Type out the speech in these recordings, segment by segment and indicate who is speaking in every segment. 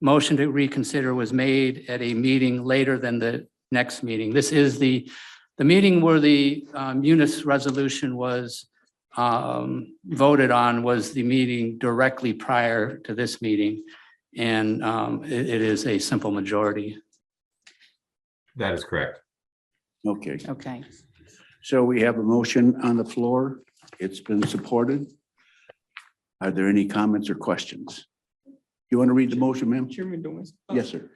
Speaker 1: motion to reconsider was made at a meeting later than the next meeting. This is the, the meeting where the um, UNIS resolution was um, voted on was the meeting directly prior to this meeting. And um, it- it is a simple majority.
Speaker 2: That is correct.
Speaker 3: Okay,
Speaker 4: Okay.
Speaker 3: so we have a motion on the floor. It's been supported. Are there any comments or questions? You want to read the motion, ma'am?
Speaker 5: Chairman Domas. uh,
Speaker 3: Yes, sir.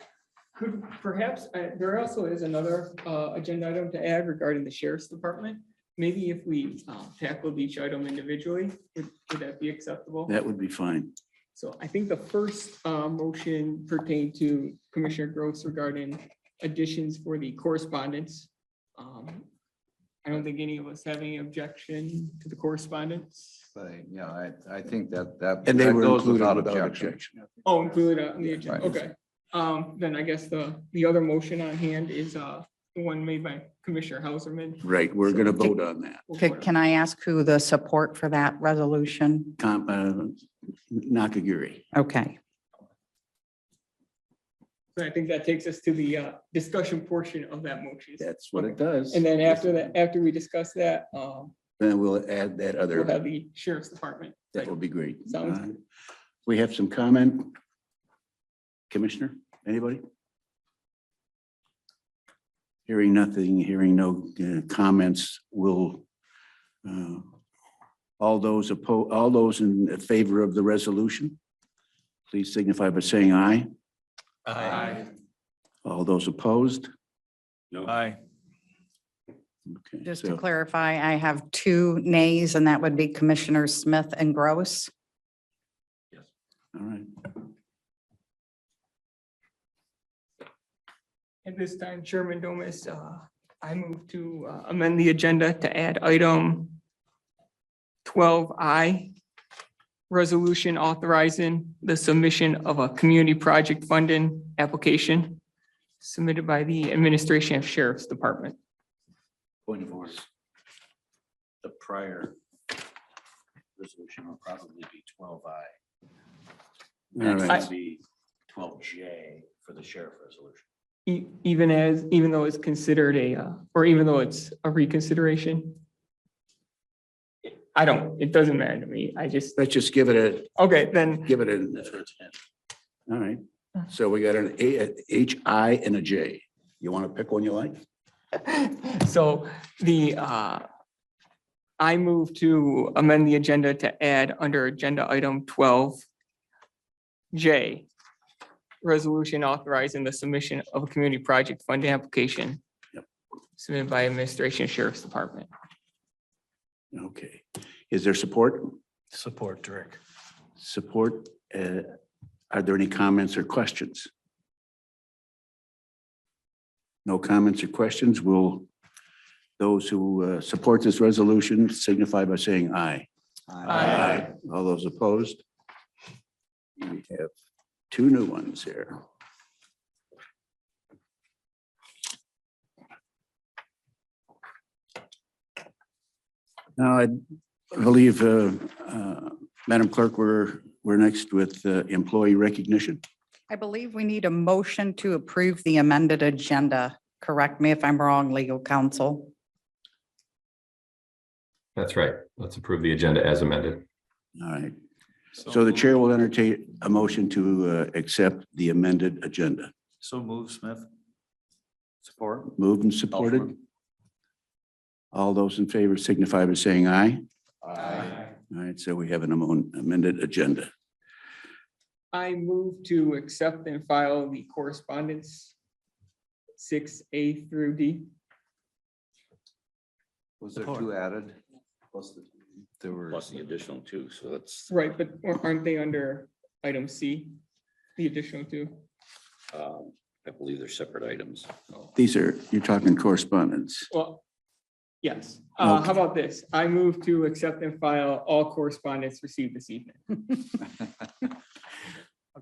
Speaker 5: Could perhaps, uh, there also is another uh, agenda item to add regarding the sheriff's department. Maybe if we um, tackled each item individually, would would that be acceptable?
Speaker 3: That would be fine.
Speaker 5: So I think the first uh, motion pertained to Commissioner Gross regarding additions for the correspondence. Um, I don't think any of us have any objection to the correspondence.
Speaker 6: Same, yeah, I, I think that, that.
Speaker 3: And they
Speaker 6: that
Speaker 3: were
Speaker 6: goes
Speaker 3: included
Speaker 6: without
Speaker 3: without
Speaker 6: objection.
Speaker 3: objection.
Speaker 5: Oh, include it on the agenda,
Speaker 6: Right.
Speaker 5: okay. Um, Then I guess the, the other motion on hand is uh, the one made by Commissioner Hauserman.
Speaker 3: Right, we're going to vote on that.
Speaker 4: Could- Can I ask who the support for that resolution?
Speaker 3: Com- uh, Nakagiri.
Speaker 4: Okay.
Speaker 5: So I think that takes us to the uh, discussion portion of that motion.
Speaker 3: That's what it does.
Speaker 5: And then after that, after we discuss that, um,
Speaker 3: Then we'll add that
Speaker 5: we'll have
Speaker 3: other,
Speaker 5: the sheriff's department.
Speaker 3: that would be great.
Speaker 5: Sounds
Speaker 3: Uh, We have some comment? Commissioner, anybody? Hearing nothing, hearing no uh, comments, will uh, all those opposed, all those in favor of the resolution, please signify by saying aye.
Speaker 5: Aye.
Speaker 3: All those opposed?
Speaker 7: Aye.
Speaker 3: Okay,
Speaker 4: Just to
Speaker 3: so-
Speaker 4: clarify, I have two nays, and that would be Commissioners Smith and Gross.
Speaker 3: All right.
Speaker 5: At this time, Chairman Domas, uh, I move to uh, amend the agenda to add item twelve I, resolution authorizing the submission of a community project funding application submitted by the Administration of Sheriff's Department.
Speaker 6: Point of order. The prior resolution will probably be twelve I.
Speaker 3: All right.
Speaker 6: be twelve J for the sheriff resolution.
Speaker 5: E- Even as, even though it's considered a, uh, or even though it's a reconsideration? I don't, it doesn't matter to me. I just,
Speaker 3: Let's just give it a,
Speaker 5: okay, then,
Speaker 3: give it an,
Speaker 6: That's what it's in.
Speaker 3: all right. So we got an A, a H, I, and a J. You want to pick one you like?
Speaker 5: so the, uh, I move to amend the agenda to add under agenda item twelve J, resolution authorizing the submission of a community project fund application
Speaker 3: Yep.
Speaker 5: submitted by Administration Sheriff's Department.
Speaker 3: Okay. Is there support?
Speaker 7: Support, Dirk.
Speaker 3: Support? uh, Are there any comments or questions? No comments or questions? Will those who uh, support this resolution signify by saying aye?
Speaker 5: Aye.
Speaker 3: All those opposed? We have two new ones here. Now, I believe, uh, uh, Madam Clerk, we're, we're next with uh, employee recognition.
Speaker 4: I believe we need a motion to approve the amended agenda. Correct me if I'm wrong, legal counsel.
Speaker 2: That's right. Let's approve the agenda as amended.
Speaker 3: All right. So the chair will entertain a motion to uh, accept the amended agenda.
Speaker 7: So move, Smith. Support.
Speaker 3: Moved and supported. All those in favor signify by saying aye. All right, so we have an amon- amended agenda.
Speaker 5: I move to accept and file the correspondence six A through D.
Speaker 6: Was there two added? There were.
Speaker 8: Plus the additional two, so that's,
Speaker 5: Right, but aren't they under item C, the additional two?
Speaker 8: um, I believe they're separate items.
Speaker 3: These are, you're talking correspondence.
Speaker 5: Well, yes. Uh,
Speaker 3: Okay.
Speaker 5: how about this? I move to accept and file all correspondence received this evening.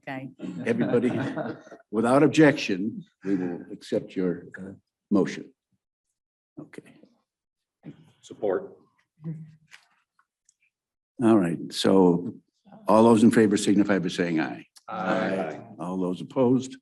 Speaker 4: Okay.
Speaker 3: Everybody, without objection, we will accept your uh, motion. Okay,
Speaker 8: Support.
Speaker 3: all right. So all those in favor signify by saying aye. All those opposed?